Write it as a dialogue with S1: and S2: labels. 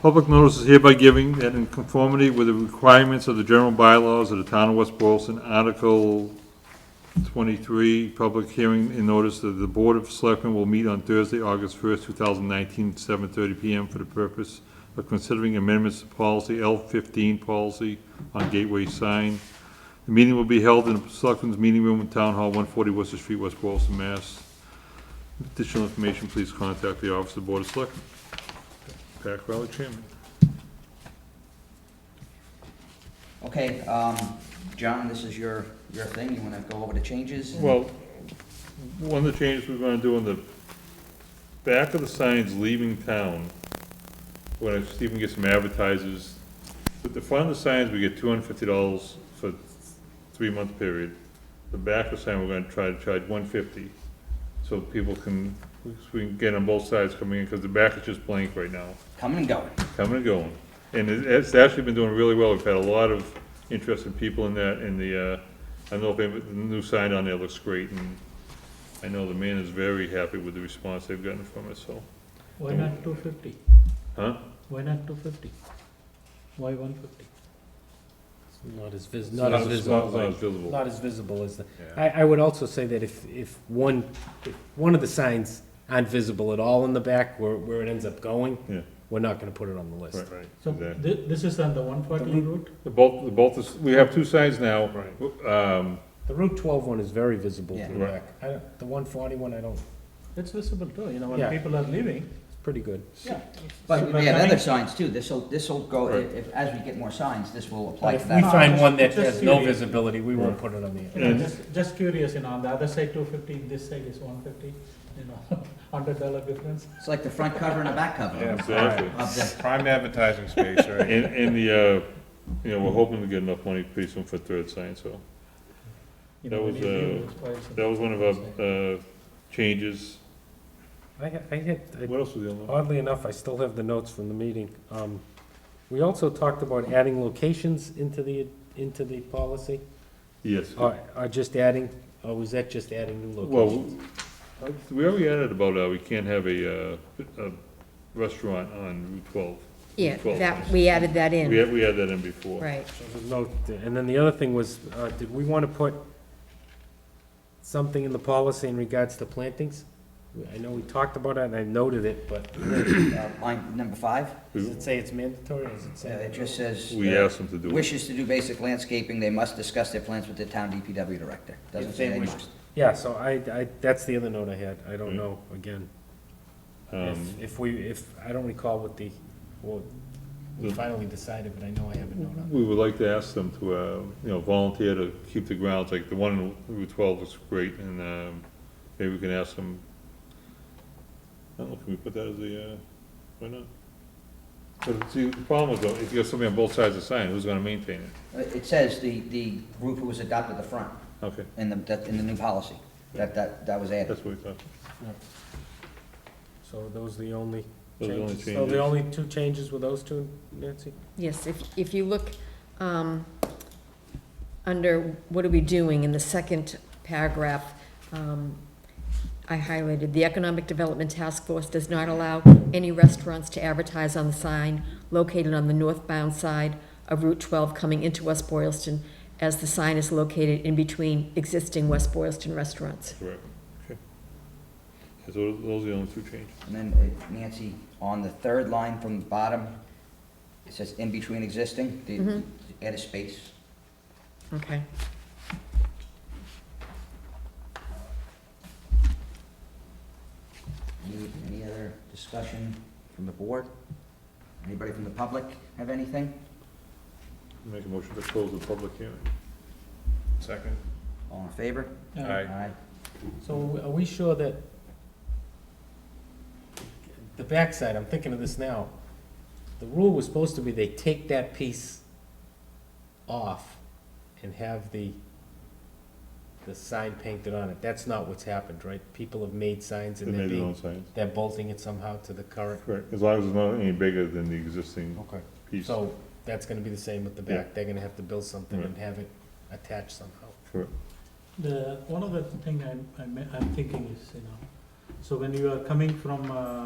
S1: Public notice is hereby giving that in conformity with the requirements of the general bylaws of the town of West Boylston, Article twenty-three, public hearing and notice that the Board of Selectmen will meet on Thursday, August first, two thousand nineteen, seven thirty PM for the purpose of considering amendments to policy L fifteen policy on gateway sign. The meeting will be held in the Selectmen's Meeting Room in Town Hall, one forty Worcester Street, West Boylston, Mass. Additional information, please contact the Office of the Board of Selectmen. Pat Crowley, Chairman.
S2: Okay, um, John, this is your, your thing, you wanna go over the changes? and-
S1: Well, one of the changes we're gonna do in the back of the signs leaving town, when I even get some advertisers, but the front of the signs, we get two hundred fifty dollars for three-month period. The back of the sign, we're gonna try to charge one fifty, so people can, so we can get on both sides coming in, because the back is just blank right now,
S2: Coming and going.
S1: coming and going. And it- it's actually been doing really well, we've had a lot of interested people in that, in the, uh, I know if they- the new sign on there looks great, and I know the man is very happy with the response they've gotten from it, so,
S3: Why not two fifty?
S1: huh?
S3: Why not two fifty? Why one fifty?
S4: Not as vis,
S1: Not
S4: not as
S1: not as
S4: visible,
S1: visible.
S4: not as visible as the,
S1: Yeah.
S4: I, I would also say that if, if one, if one of the signs aren't visible at all in the back where, where it ends up going,
S1: Yeah.
S4: we're not gonna put it on the list.
S1: Right, right,
S3: So
S1: exactly.
S3: thi- this is on the one forty route?
S1: The both, the both, is- we have two signs now. Right. Um,
S4: The Route 12 one is very visible
S2: Yeah.
S4: to the
S1: Right.
S4: back. I don't, the 141 I don't,
S3: It's visible too, you know, when
S4: Yeah.
S3: people are leaving,
S4: it's pretty good.
S3: yeah.
S2: But
S3: People are
S2: we had other
S3: coming.
S2: signs too, this'll, this'll go,
S1: Right.
S2: if, as we get more signs, this will apply
S4: But
S2: to
S4: if we
S2: that.
S4: find one that
S3: Just
S4: has no
S3: curious.
S4: visibility, we won't
S1: Right.
S4: put it on the,
S3: You know, just, just curious, you know, on the other side two fifty, this side is one fifty, you know, hundred dollar difference.
S2: It's like the front cover and the back cover
S5: Yeah.
S1: exactly.
S2: of the,
S5: Prime advertising space, right?
S1: And, and the, uh, you know, we're hoping to get enough money pretty soon for a third sign, so.
S3: you
S1: That
S3: know,
S1: was,
S3: when you leave,
S1: uh,
S3: it's twice and-
S1: That was one of our, uh, changes.
S4: I, ha- I had, I
S1: What else was the other one?
S4: Oddly enough, I still have the notes from the meeting. Um, We also talked about adding locations into the, into the policy,
S1: Yes.
S4: or, or just adding, or was that just adding new
S1: Well,
S4: locations?
S1: I- we already added about, uh, we can't have a, uh, a restaurant on Route twelve.
S6: Yeah,
S1: Twelve
S6: that,
S1: times.
S6: we added that
S1: We
S6: in,
S1: had, we had that in before.
S6: right.
S4: So there's no- And then the other thing was, uh, did we want to put something in the policy in regards to plantings? I know we talked about it, and I noted it, but
S2: uh, line number five,
S4: does it say it's mandatory, or does it
S2: Uh,
S4: say?
S2: it just says.
S1: We
S2: uh,
S1: asked them to do it.
S2: Wishes to do basic landscaping, they must discuss their plans with the town DPW director. Doesn't
S4: If
S2: say
S4: they
S2: they
S4: wish
S2: must.
S4: Yeah, so I, I, that's the other note I had. I don't
S1: Right.
S4: know, again.
S1: Mm. Um,
S4: If, if we, if, I don't recall what the, well, we
S1: The-
S4: finally decided, but I know I have a note on
S1: We would like to ask them to, uh, you know, volunteer to keep the grounds, like the one in Route twelve looks great, and, um, maybe we can ask them. I don't know, can we put that as a, uh, why not? But see, the problem is though, if you got somebody on both sides of the sign, who's gonna maintain it?
S2: Uh, It says the, the group who was adopted the front
S1: Okay,
S2: in the, that- in the new policy, that, that, that was added.
S1: that's what we thought.
S4: it. So those are the only
S1: Those are the only
S4: changes? So
S1: changes.
S4: the only two changes were those two, Nancy?
S6: Yes, if, if you look, um, under what are we doing in the second paragraph, um, I highlighted, the Economic Development Task Force does not allow any restaurants to advertise on the sign located on the northbound side of Route twelve coming into West Boylston, as the sign is located in between existing West Boylston restaurants.
S1: Correct. Okay. So those are the only two changes.
S2: And then uh, Nancy, on the third line from the bottom, it says in between existing, the-
S6: Mhm.
S2: add a space.
S6: Okay.
S2: Any, any other discussion from the board? Anybody from the public have anything?
S1: Make a motion to close the public hearing.
S5: Second.
S2: All in favor?
S1: uh,
S3: Yeah.
S5: Aye.
S4: So are we sure that the backside, I'm thinking of this now, the rule was supposed to be they take that piece off and have the, the sign painted on it. That's not what's happened, right? People have made signs
S1: They
S4: and they're
S1: made their
S4: being
S1: own signs.
S4: They're bolting it somehow to the current.
S1: Correct, as long as it's not any bigger than the existing
S4: Okay.
S1: piece.
S4: Oh, So that's gonna be the same with the back, they're gonna have to build something and have it attached somehow.
S1: Correct.
S3: The, one other thing I'm, I'm, I'm thinking is, you know, so when you are coming from, uh,